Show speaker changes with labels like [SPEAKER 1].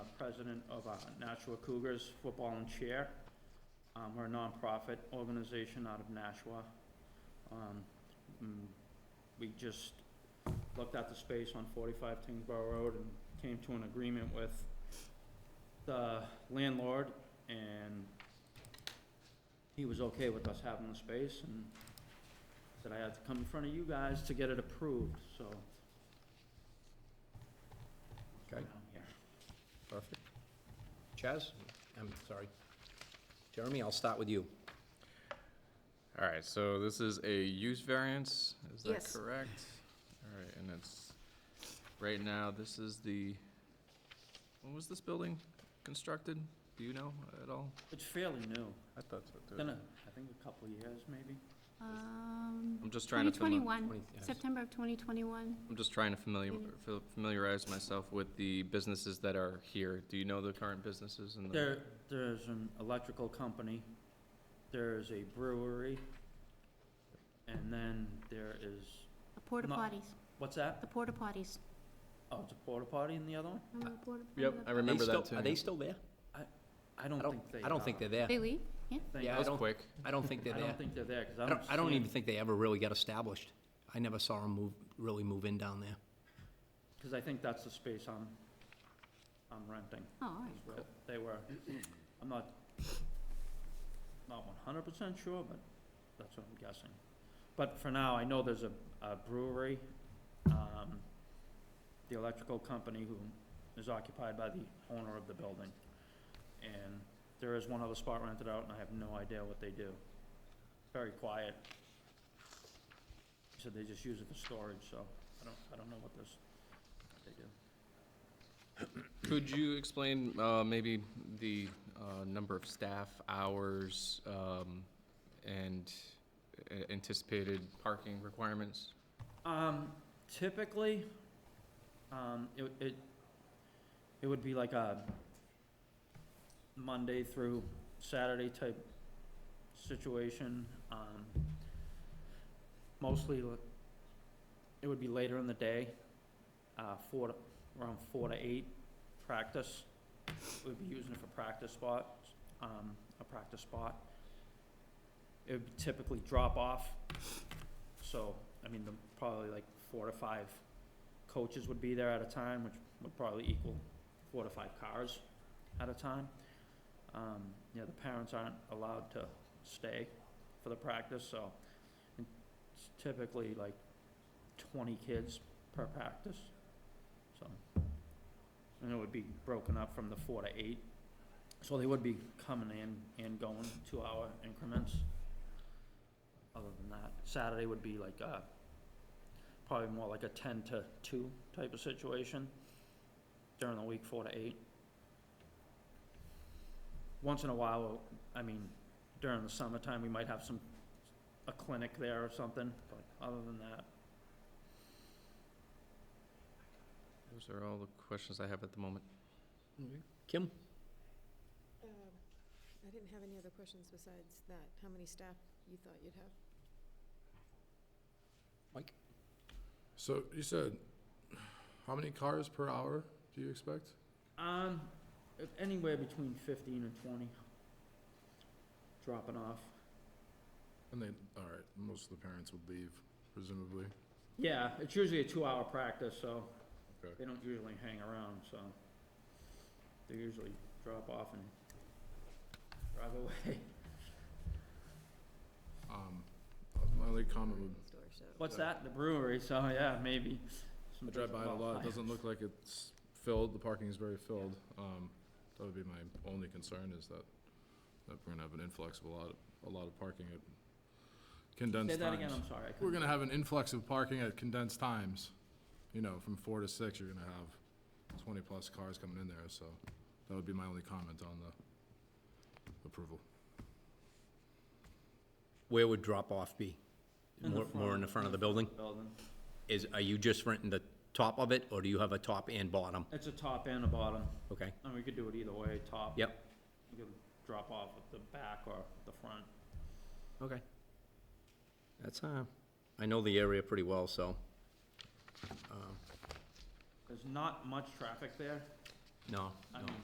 [SPEAKER 1] president of uh, Nashua Cougars Football and Chair. Um, We're a nonprofit organization out of Nashua. Um, mm, We just looked at the space on 45 Tingsborough Road and came to an agreement with the landlord, and he was okay with us having the space, and said I had to come in front of you guys to get it approved, so. I'm
[SPEAKER 2] Okay.
[SPEAKER 1] here.
[SPEAKER 2] Perfect. Chaz? I'm sorry. Jeremy, I'll start with you.
[SPEAKER 3] All right, so this is a use variance, is that
[SPEAKER 4] Yes.
[SPEAKER 3] correct? All right, and it's, right now, this is the, when was this building constructed? Do you know at all?
[SPEAKER 1] It's fairly new,
[SPEAKER 3] I thought so,
[SPEAKER 1] been, a- I think a couple of years, maybe.
[SPEAKER 4] Um,
[SPEAKER 3] I'm just trying to, fami-
[SPEAKER 4] 2021,
[SPEAKER 2] 20 yes.
[SPEAKER 4] September of 2021.
[SPEAKER 3] I'm just trying to familiar, fa- familiarize myself with the businesses that are here. Do you know the current businesses and the?
[SPEAKER 1] There, there's an electrical company, there's a brewery, and then there is,
[SPEAKER 4] The porta
[SPEAKER 1] No.
[SPEAKER 4] potties,
[SPEAKER 1] what's
[SPEAKER 4] the
[SPEAKER 1] that?
[SPEAKER 4] porta potties.
[SPEAKER 1] Oh, it's a porta potty in the other one?
[SPEAKER 4] Remember the porta-
[SPEAKER 3] Uh, Yep, I
[SPEAKER 4] remember
[SPEAKER 3] remember
[SPEAKER 2] They
[SPEAKER 3] that
[SPEAKER 2] still-
[SPEAKER 3] too.
[SPEAKER 2] Are they still there?
[SPEAKER 1] I don't
[SPEAKER 2] I
[SPEAKER 1] think they
[SPEAKER 2] don't, I don't think
[SPEAKER 1] are.
[SPEAKER 2] they're
[SPEAKER 4] the-
[SPEAKER 2] there.
[SPEAKER 4] They leave? Yeah.
[SPEAKER 1] Think-
[SPEAKER 2] Yeah,
[SPEAKER 3] That
[SPEAKER 2] I
[SPEAKER 3] was
[SPEAKER 2] don't-
[SPEAKER 3] quick.
[SPEAKER 2] I don't think they're
[SPEAKER 1] I
[SPEAKER 2] there.
[SPEAKER 1] don't think they're there, because I
[SPEAKER 2] I
[SPEAKER 1] don't
[SPEAKER 2] don't, I don't
[SPEAKER 1] see
[SPEAKER 2] even
[SPEAKER 1] them.
[SPEAKER 2] think they ever really got established. I never saw them move, really move in down there.
[SPEAKER 1] Because I think that's the space I'm, I'm renting,
[SPEAKER 4] Oh, all right.
[SPEAKER 1] is where they were. I'm not, not one hundred percent sure, but that's what I'm guessing. But for now, I know there's a a brewery, um, the electrical company who is occupied by the owner of the building. And there is one other spot rented out, and I have no idea what they do. Very quiet. He said they just use it for storage, so I don't, I don't know what this, what they do.
[SPEAKER 3] Could you explain uh, maybe the uh, number of staff, hours, um, and a- anticipated parking requirements?
[SPEAKER 1] Um, typically, um, it, it, it would be like a Monday through Saturday type situation, um, mostly, l- it would be later in the day, uh, four to, around four to eight, practice. We'd be using it for practice spots, um, a practice spot. It would typically drop off so, I mean, the, probably like four to five coaches would be there at a time, which would probably equal four to five cars at a time. Um, you know, the parents aren't allowed to stay for the practice, so it's typically like twenty kids per practice, so. And it would be broken up from the four to eight, so they would be coming in and going two-hour increments other than that. Saturday would be like a, probably more like a ten to two type of situation. During the week, four to eight. Once in a while, I mean, during the summertime, we might have some, a clinic there or something, but other than that,
[SPEAKER 3] Those are all the questions I have at the moment.
[SPEAKER 1] Mm-hmm.
[SPEAKER 2] Kim?
[SPEAKER 5] Um, I didn't have any other questions besides that. How many staff you thought you'd have?
[SPEAKER 2] Mike?
[SPEAKER 6] So you said, how many cars per hour do you expect?
[SPEAKER 1] um, if anywhere between fifteen and twenty. Dropping off.
[SPEAKER 6] And they, all right, most of the parents would leave presumably.
[SPEAKER 1] Yeah, it's usually a two-hour practice, so
[SPEAKER 6] Okay.
[SPEAKER 1] they don't usually hang around, so they usually drop off and drive away.
[SPEAKER 6] Um, my only comment would,
[SPEAKER 5] Next door, so.
[SPEAKER 1] What's that? The brewery, so yeah, maybe.
[SPEAKER 6] I drive by it a lot, it doesn't look like it's filled, the parking is very filled. Um, that would be my only concern is that, that we're gonna have an influx of a lot, a lot of parking at condensed
[SPEAKER 1] Say
[SPEAKER 6] times.
[SPEAKER 1] that again, I'm sorry. I couldn't-
[SPEAKER 6] We're gonna have an influx of parking at condensed times, you know, from four to six, you're gonna have twenty-plus cars coming in there, so that would be my only comment on the approval.
[SPEAKER 2] Where would drop-off be?
[SPEAKER 1] the
[SPEAKER 2] More, more in the front of the building?
[SPEAKER 1] Building.
[SPEAKER 2] Is, are you just renting the top of it, or do you have a top and bottom?
[SPEAKER 1] It's a top and a bottom,
[SPEAKER 2] Okay,
[SPEAKER 1] and we could do it either way, top.
[SPEAKER 2] yep,
[SPEAKER 1] You could drop off at the back or the front.
[SPEAKER 2] okay. That's, uh, I know the area pretty well, so, uh,
[SPEAKER 1] There's not much traffic there.
[SPEAKER 2] no,
[SPEAKER 1] I
[SPEAKER 2] no.
[SPEAKER 1] mean,